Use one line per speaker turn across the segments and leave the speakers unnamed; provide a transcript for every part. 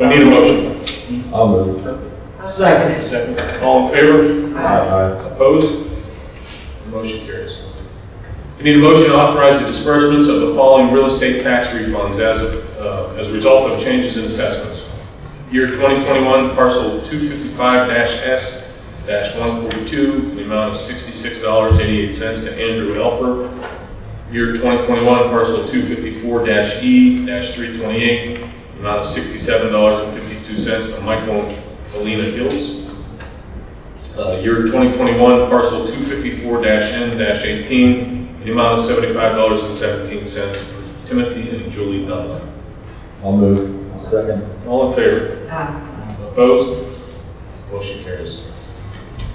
We need a motion.
I'll move.
Second.
Second. All in favor?
Aye.
Opposed? Motion carries. We need a motion to authorize the disbursements of the following real estate tax refunds as, of, uh, as a result of changes in assessments. Year 2021 parcel 255-S-142, in the amount of $66.88 to Andrew Elfer. Year 2021 parcel E 254-E-328, in the amount of $67.52 to Michael and Helena Hiltz. Uh, year 2021, parcel 254-N-18, in the amount of $75.17 for Timothy and Julie Dunlap.
I'll move. Second.
All in favor?
Aye.
Opposed? Motion carries.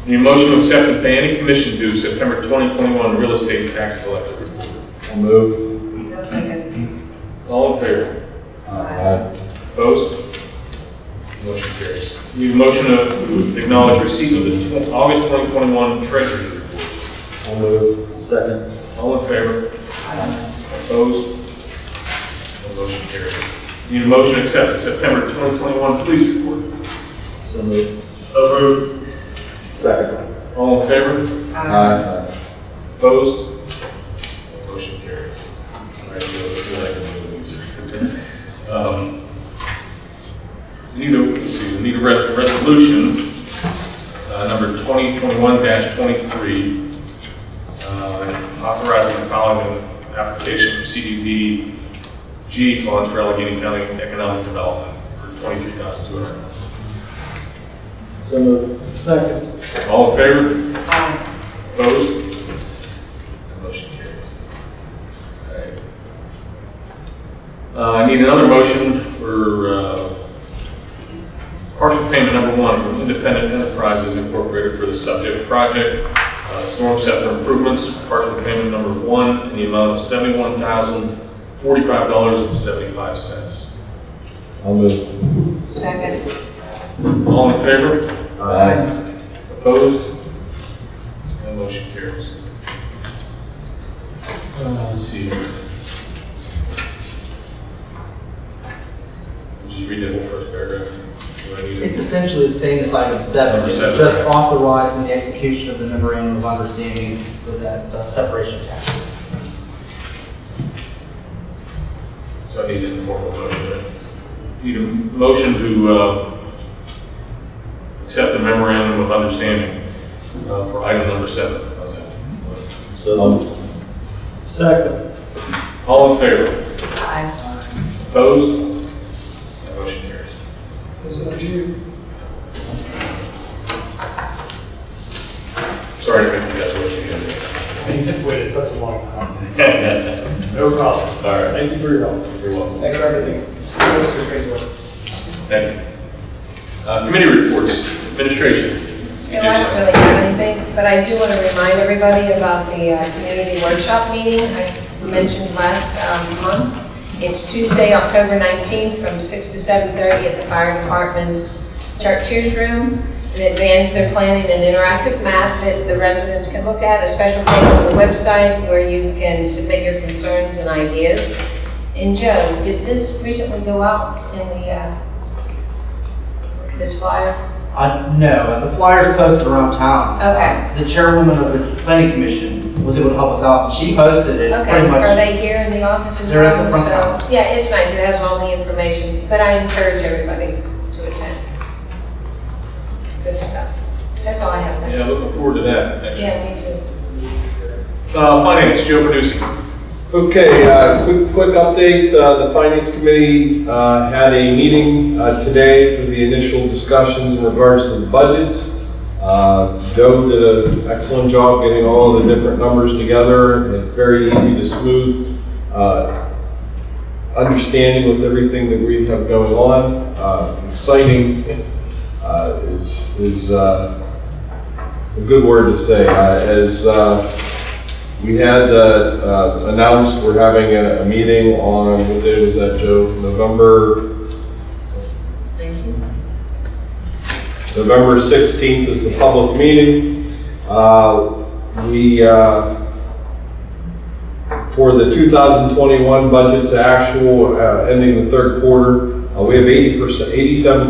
Need a motion to accept and pay any commission due September 2021 real estate tax collector report.
I'll move.
Second.
All in favor?
Aye.
Opposed? Motion carries. Need a motion to acknowledge receipt of the tw- August 2021 treasurer's report.
I'll move. Second.
All in favor?
Aye.
Opposed? No motion carried. Need a motion to accept the September 2021 police report.
So move.
So moved.
Second.
All in favor?
Aye.
Opposed? No Motion carried. All right, Joe, let's see what I can do with these. Um, we Need a, let's see, we need a res- resolution, uh, number 2021-23, uh, authorizing the following application for CDBG funds for Allegheny County Economic Development for $23,200.
So move. Second.
All in favor?
Aye.
Opposed? That Motion carries. Alright. Uh, I need another motion for, uh, partial payment number one from Independent Enterprises Incorporated for the subject project, uh, storm scepter improvements, partial payment number one in the amount of seventy-one thousand, forty-five dollars and seventy-five cents.
I'll move.
Second.
All in favor?
Aye.
Opposed? That motion carries. Uh, Let's see. here. Just read that whole first paragraph. Do I need to-
It's essentially the same as item seven,
Number
it's
seven,
just
okay.
authorizing the execution of the memorandum of understanding for that uh, separation tax.
So I need an informal motion. right? Need a motion to uh, accept the memorandum of understanding uh, for item number seven. How's that?
So move. Second.
All in favor?
Aye.
Opposed? That motion carries. Sorry to make you guys wait
I
again.
mean, this waited such a long time. No problem.
All right,
Thank you for your help.
you're welcome.
Thanks for everything. This was great work.
Thank you. Uh, Committee reports, administration.
No, I don't really have anything, but I do want to remind everybody about the uh, community workshop meeting I mentioned last um, month. It's Tuesday, October 19th, from 6 to 7:30 at the fire department's Chartiers Room. And advance their planning an interactive map that the residents can look at, a special page on the website where you can submit your concerns and ideas. And Joe, did this recently go out in the, uh, this flyer?
Uh, no, the flyers posted around town.
Okay.
The chairwoman of the planning commission was able to help us out, she posted it
Okay,
pretty
are
much.
they here in the office as well?
They're at the front
So-
counter.
Yeah, it's nice, it has all the information, but I encourage everybody to attend. Good stuff. That's all I have.
Yeah, looking forward to that, actually.
Yeah, me too.
Uh, Finance, Joe Producing.
Okay, uh, quick, quick update, Uh, the Finance Committee uh, had a meeting uh, today for the initial discussions in regards to the budget. Uh, Joe did an excellent job getting all the different numbers together, and very easy to smooth uh, understanding with everything that we have going on. Uh, Exciting uh, is, is uh, a good word to say, Uh, as uh, we had uh, uh, announced we're having a, a meeting on, what day was that, Joe? November,
Thank you.
November 16th is the public meeting. Uh, We, uh, for the 2021 budget to actual uh, ending the third quarter, Uh, We have 80%, 87